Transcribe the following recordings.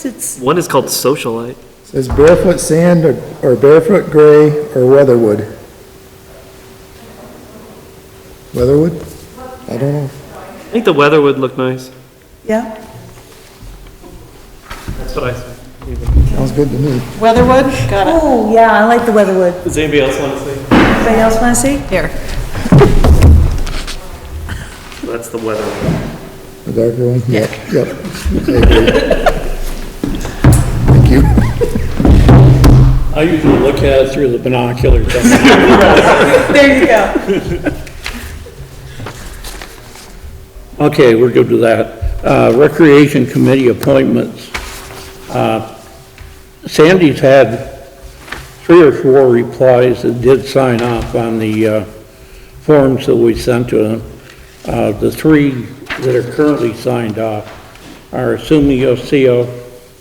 It's, One is called Socialite. Says barefoot sand or or barefoot gray or weatherwood. Weatherwood? I don't know. I think the weather would look nice. yeah, That's what I. Sounds good to me. Weatherwood, got it. oh, yeah, I like the Weatherwood. Does anybody else want to say? Anybody else want to see? Here. That's the weather. The darker one? Yep, yep. I agree. Thank you. I usually look at it through the binoculars. There you go. Okay, we're good with that. Uh, Recreation Committee appointments. Uh, Sandy's had three or four replies that did sign off on the uh, forms that we sent to them. Uh, The three that are currently signed off are Sumi Yoshio,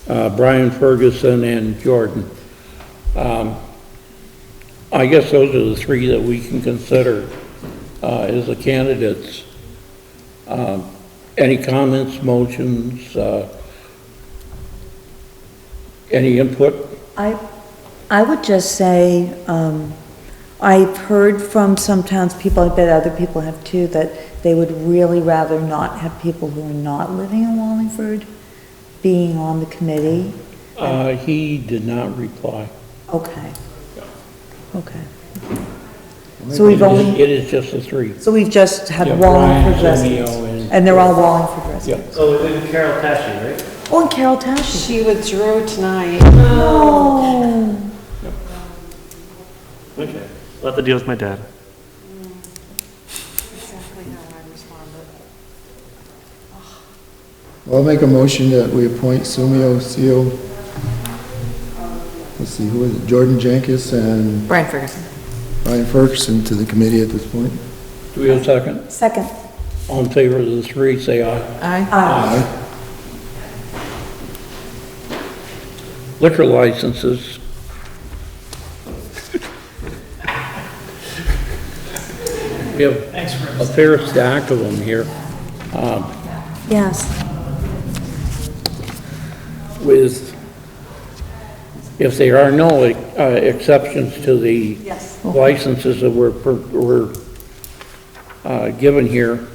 uh, Brian Ferguson, and Jordan. Um, I guess those are the three that we can consider uh, as the candidates. Um, Any comments, motions, uh, any input? I, I would just say, um, I've heard from some townspeople, I bet other people have too, that they would really rather not have people who are not living in Wallingford being on the committee. Uh, He did not reply. Okay. Okay. So we've only, It is just the three. so we've just Yeah, had Brian, Wallingford Romeo, residents, and- and they're all Wallingford residents. Oh, and Carol Tashi, right? Oh, and Carol Tashi. She withdrew tonight. Oh. Okay. We'll have to deal with my dad. Exactly how I responded. I'll make a motion that we appoint Sumio Seo. Let's see, who is it? Jordan Jenkins and Brian Ferguson. Brian Ferguson to the committee at this point. Do we have a second? Second. All in favor of the three, say aye. Aye. Aye. Liquor licenses, we have a fair stack of them here. Yes. with, if there are no uh, exceptions to the Yes. licenses that were, per- were uh, given here,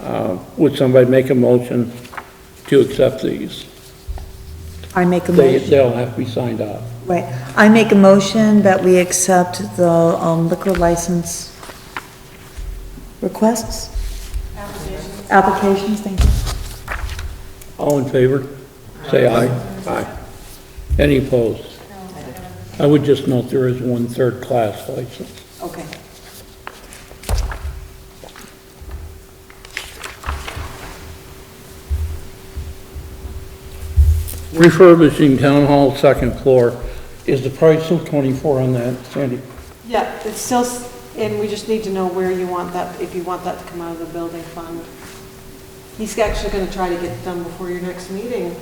uh, would somebody make a motion to accept these? I make a They, motion, they'll have to be signed off. right. I make a motion that we accept the um, liquor license requests? Applications. Applications, thank you. All in favor? Say aye. Aye. Any opposed? I would just note there is one third-class license. Okay. Refurbishing town hall second floor, is the price still 24 on that, Sandy? Yeah, it's still, s- and we just need to know where you want that, if you want that to come out of the building fund. He's actually going to try to get it done before your next meeting.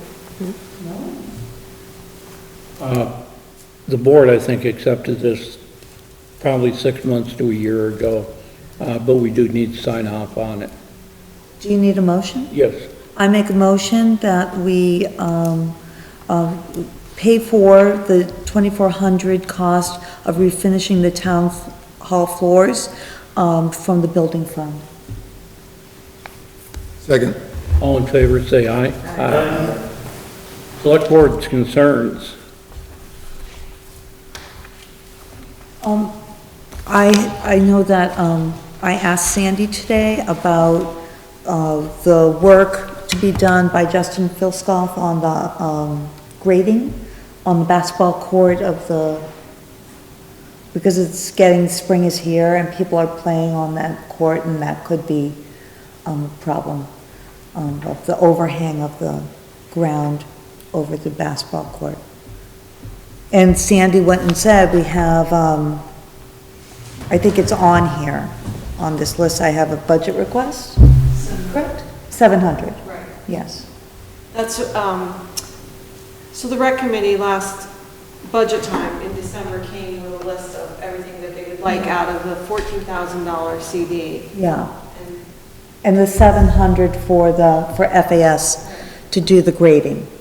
Uh, The board, I think, accepted this probably six months to a year ago, uh, but we do need to sign off on it. Do you need a motion? Yes, I make a motion that we um, uh, pay for the 2,400 cost of refinishing the town hall floors um, from the building fund. Second. all in favor, say aye. Aye. Select board's concerns. Um, I, I know that, um, I asked Sandy today about, uh, the work to be done by Justin Filskoff on the, um, grading on the basketball court of the, because it's getting, spring is here and people are playing on that court and that could be, um, a problem, um, of the overhang of the ground over the basketball court. And Sandy went and said, we have, um, I think it's on here, on this list, I have a budget request, correct? Seven hundred, Right. yes. That's, um, so the rec committee last budget time in December came with a list of everything that they would like out of the $14,000 CD. Yeah, And and the seven hundred for the, for FAS to do the grading.